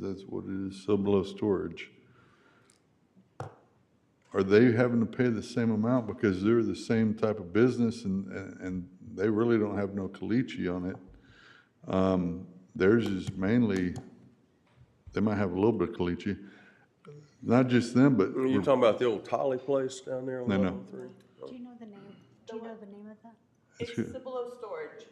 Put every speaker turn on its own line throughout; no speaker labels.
That's what it is, sub-low storage. Are they having to pay the same amount because they're the same type of business and, and- and they really don't have no caliche on it? Um, Theirs is mainly, they might have a little bit of caliche. Not just them, but
You're talking about the old Tolly place down there on
No, no.
103?
Do you know the name? Do you know the name of that?
It's
good.
Cibolo Storage.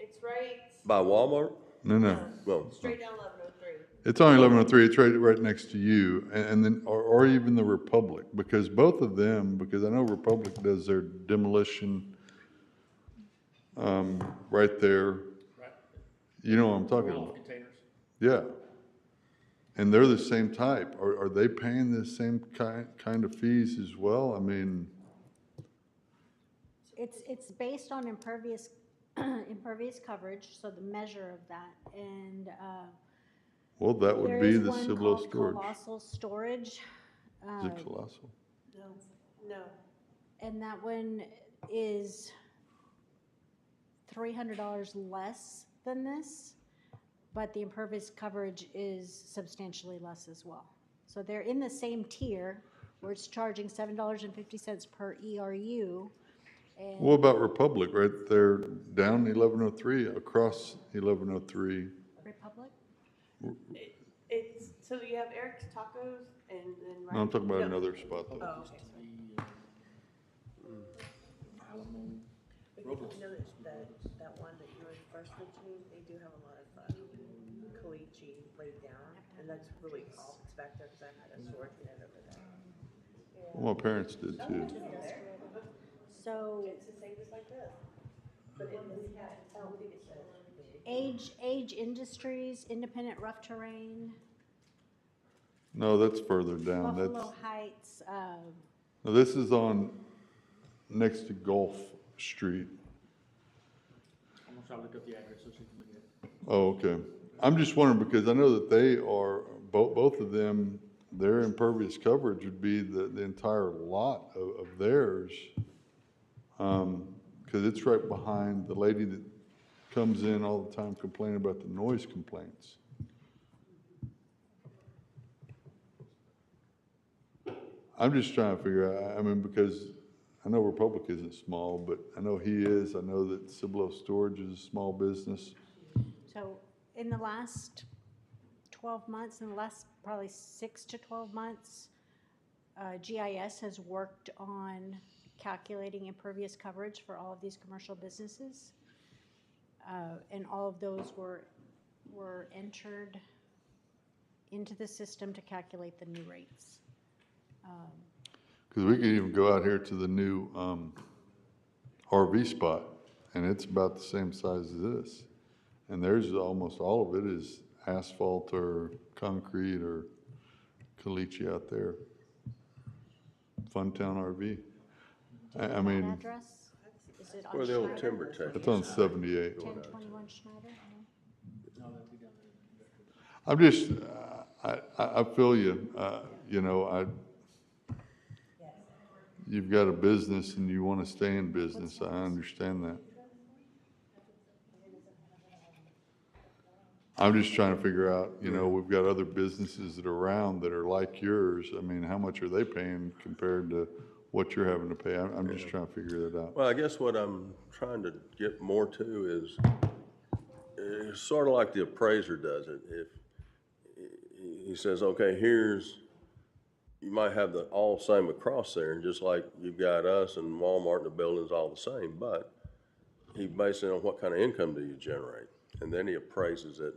It's right
By Walmart?
no, no.
Well,
straight down 1103.
It's on eleven oh three, it's right, right next to you, and, and then, or, or even the Republic, because both of them, because I know Republic does their demolition um, right there. You know what I'm talking about?
containers.
Yeah. And they're the same type. Are, are they paying the same kind, kind of fees as well? I mean,
It's, it's based on impervious, impervious coverage, so the measure of that, and, uh,
well, that would
there
be
is
the
one
Cibolo
called
storage.
Colossal storage,
Is it colossal?
No,
and that one is three hundred dollars less than this, but the impervious coverage is substantially less as well. So they're in the same tier, where it's charging seven dollars and fifty cents per E ERU, and
What about Republic right there down eleven oh three, across eleven oh three?
Republic?
it's, so you have Eric's Tacos and then right.
No, I'm talking about
No.
another spot though.
Oh, okay. sorry.
You know, that, that, that one that you were first mentioning, they do have a lot of, uh, caliche laid down, and that's really all that's back there, cause I had a sword in it over there.
Well, my parents did too.
So
It's the same as like this. But in this cat, oh, what did it say?
Age, Age Industries, Independent Rough Terrain,
No, that's further down. That's,
Buffalo Heights, uh,
no, this is on, next to Gulf Street.
I'm gonna try to look up the address so she can look at it.
Oh, okay. I'm just wondering because I know that they are, both, both of them, their impervious coverage would be the, the entire lot of, of theirs. Um, cause it's right behind the lady that comes in all the time complaining about the noise complaints. I'm just trying to figure out, I- I mean, because I know Republic isn't small, but I know he is. I know that Cibolo Storage is a small business.
so in the last 12 months, in the last probably six to 12 months, uh, GIS has worked on calculating impervious coverage for all of these commercial businesses. Uh, And all of those were, were entered into the system to calculate the new rates.
Because we could even go out here to the new um, RV spot, and it's about the same size as this. And there's almost all of it is asphalt or concrete or caliche out there. Funtown RV. I, I
That
mean,
address? Is it on
where Hmm. the old
Schneider?
timber tech.
it's on 78.
1021 Schneider? No?
I'm just, uh, I, I I feel you, uh, you know, I, you've got a business and you want to stay in business, I understand that. I'm just trying to figure out, you know, we've got other businesses that are around that are like yours, I mean, how much are they paying compared to what you're having to pay? I'm, I'm just trying to figure that out.
Well, I guess what I'm trying to get more to is, it's sort of like the appraiser does it. If, eh, he- he says, okay, here's, you might have the all same across there, and just like you've got us and Walmart, the building's all the same, but he bases it on what kind of income do you generate? And then he appraises it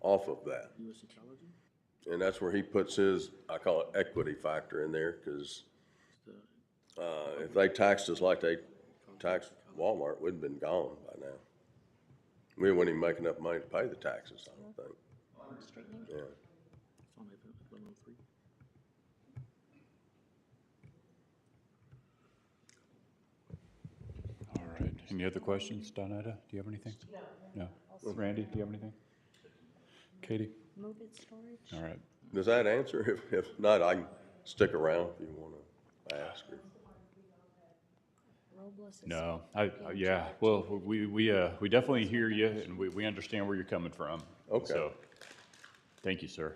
off of that. And that's where he puts his, I call it equity factor in there, because uh, if they taxed us like they taxed Walmart, we'd been gone by now. We wouldn't even make enough money to pay the taxes, I don't think. Yeah.
It's on eleven oh three.
All right. Any other questions? Donetta, do you have anything? No. No. Randy, do you have anything? Katie?
Move it storage?
All right.
Does that answer? If, if not, I can stick around if you want to ask. or-
Robles is.
No, I, I- yeah, well, uh, we, we, uh, we definitely hear you and we, we understand where you're coming from.
Okay.
So Thank you, sir.